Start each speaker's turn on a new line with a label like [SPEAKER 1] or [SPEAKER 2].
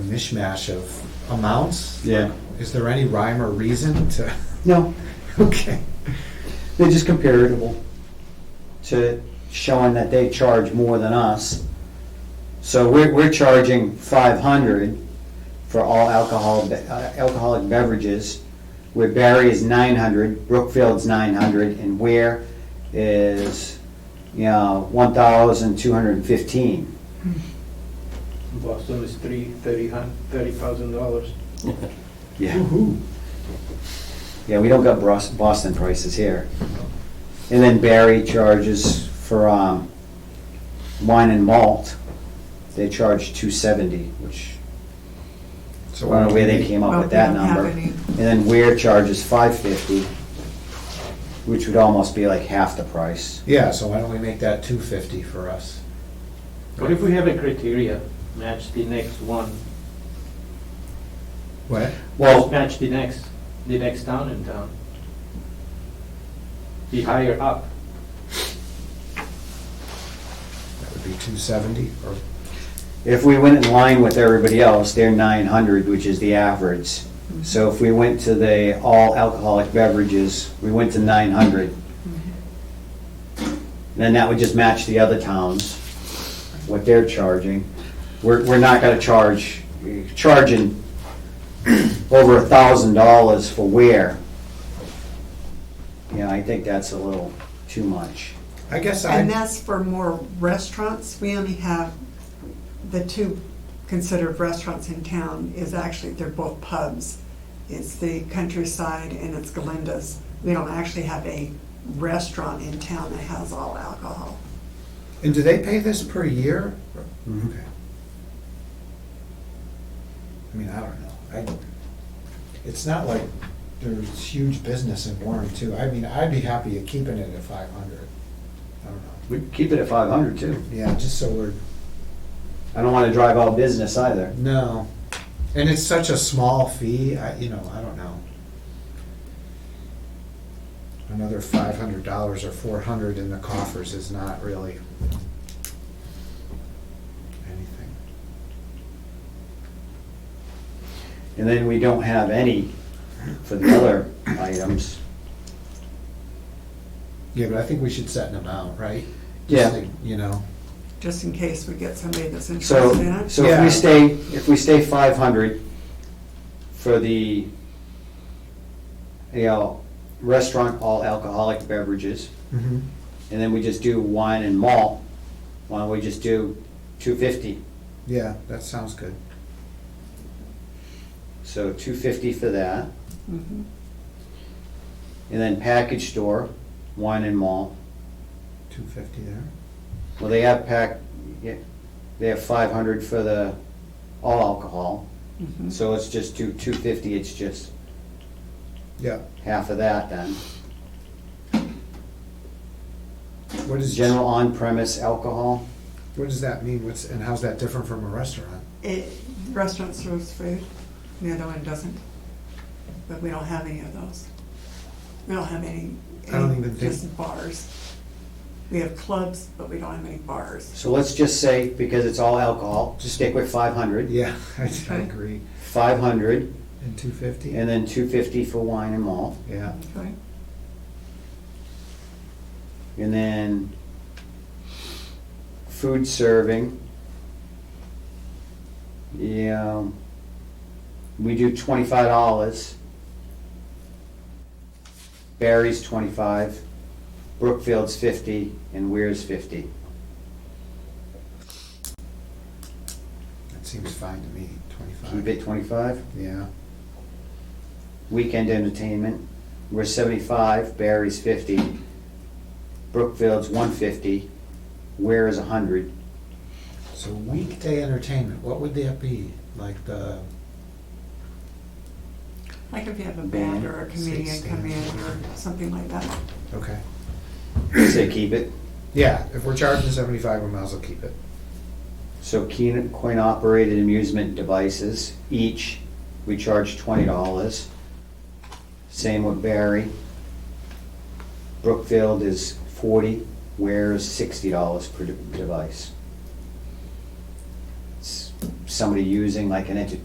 [SPEAKER 1] mishmash of amounts?
[SPEAKER 2] Yeah.
[SPEAKER 1] Is there any rhyme or reason to,
[SPEAKER 2] No,
[SPEAKER 1] okay,
[SPEAKER 2] they're just comparable to showing that they charge more than us. So we're, we're charging five hundred for all alcohol, be- uh, alcoholic beverages, where Barry is nine hundred, Brookfield's nine hundred, and Ware is, you know, one thousand two hundred and fifteen.
[SPEAKER 3] Boston is three, thirty hun, thirty thousand dollars.
[SPEAKER 2] Yeah. Yeah, we don't got Bros- Boston prices here. And then Barry charges for um, wine and malt, they charge two seventy, which, I
[SPEAKER 1] so
[SPEAKER 2] don't know where they came up
[SPEAKER 4] Well,
[SPEAKER 2] with that
[SPEAKER 4] we don't have
[SPEAKER 2] number.
[SPEAKER 4] any.
[SPEAKER 2] And then Ware charges five fifty, which would almost be like half the price.
[SPEAKER 1] Yeah, so why don't we make that two fifty for us?
[SPEAKER 3] What if we have a criteria, match the next one,
[SPEAKER 1] What?
[SPEAKER 2] Well,
[SPEAKER 3] match the next, the next town in town? Be higher up,
[SPEAKER 1] That would be two seventy or,
[SPEAKER 2] if we went in line with everybody else, they're nine hundred, which is the average. So if we went to the all alcoholic beverages, we went to nine hundred. Then that would just match the other towns, what they're charging. We're, we're not gonna charge, charging over a thousand dollars for wear. You know, I think that's a little too much.
[SPEAKER 1] I guess
[SPEAKER 4] And
[SPEAKER 1] I,
[SPEAKER 4] that's for more restaurants. We only have the two considered restaurants in town is actually, they're both pubs. It's the Countryside and it's Galinda's. We don't actually have a restaurant in town that has all alcohol.
[SPEAKER 1] and do they pay this per year?
[SPEAKER 2] Mhm.
[SPEAKER 1] Okay. I mean, I don't know. I, it's not like there's huge business in Warren too. I mean, I'd be happy at keeping it at five hundred. I don't know.
[SPEAKER 2] We could keep it at five hundred too.
[SPEAKER 1] Yeah, just so we're,
[SPEAKER 2] I don't wanna drive out business either.
[SPEAKER 1] no. And it's such a small fee, I, you know, I don't know. Another five hundred dollars or four hundred in the coffers is not really anything.
[SPEAKER 2] And then we don't have any for the other items.
[SPEAKER 1] Yeah, but I think we should set an amount, right?
[SPEAKER 2] Yeah.
[SPEAKER 1] Just like, You know,
[SPEAKER 4] just in case we get somebody that's
[SPEAKER 2] So,
[SPEAKER 4] interested in it.
[SPEAKER 2] so if
[SPEAKER 1] Yeah.
[SPEAKER 2] we stay, if we stay five hundred for the, you know, restaurant all alcoholic beverages,
[SPEAKER 1] Mhm.
[SPEAKER 2] and then we just do wine and malt, why don't we just do two fifty?
[SPEAKER 1] yeah, that sounds good.
[SPEAKER 2] So two fifty for that,
[SPEAKER 4] Mhm.
[SPEAKER 2] and then package store, wine and malt.
[SPEAKER 1] Two fifty there.
[SPEAKER 2] Well, they have pack, yeah, they have five hundred for the all alcohol,
[SPEAKER 4] Mhm.
[SPEAKER 2] so let's just do two fifty, it's just
[SPEAKER 1] Yeah,
[SPEAKER 2] half of that then.
[SPEAKER 1] what is,
[SPEAKER 2] General on-premise alcohol?
[SPEAKER 1] what does that mean? What's, and how's that different from a restaurant?
[SPEAKER 4] It, restaurant serves food, the other one doesn't, but we don't have any of those. We don't have any,
[SPEAKER 1] I don't
[SPEAKER 4] any
[SPEAKER 1] even think-
[SPEAKER 4] just bars. We have clubs, but we don't have any bars.
[SPEAKER 2] So let's just say, because it's all alcohol, just stick with 500,
[SPEAKER 1] Yeah, I I agree.
[SPEAKER 2] 500,
[SPEAKER 1] And two fifty?
[SPEAKER 2] and then 250 for wine and malt.
[SPEAKER 1] Yeah,
[SPEAKER 4] Okay.
[SPEAKER 2] And then food serving. Yeah, um, we do $25. Barry's 25, Brookfield's 50, and Weir's 50.
[SPEAKER 1] that seems fine to me,
[SPEAKER 2] Keep
[SPEAKER 1] twenty-five.
[SPEAKER 2] it 25.
[SPEAKER 1] Yeah,
[SPEAKER 2] weekend entertainment. We're seventy-five, Barry's fifty, Brookfield's one fifty, Ware is hundred.
[SPEAKER 1] so weekday entertainment, what would that be? Like the,
[SPEAKER 4] Like if you have a band or a
[SPEAKER 1] Band,
[SPEAKER 4] comedian
[SPEAKER 1] stage
[SPEAKER 4] come in
[SPEAKER 1] stand.
[SPEAKER 4] or something like that.
[SPEAKER 1] okay.
[SPEAKER 2] Say keep it.
[SPEAKER 1] Yeah, if we're charging seventy-five, we might as well keep it.
[SPEAKER 2] So keen- coin-operated amusement devices, each, we charge twenty dollars. Same with Barry. Brookfield is forty, Ware is sixty dollars per de- device. It's Somebody using like an entertainment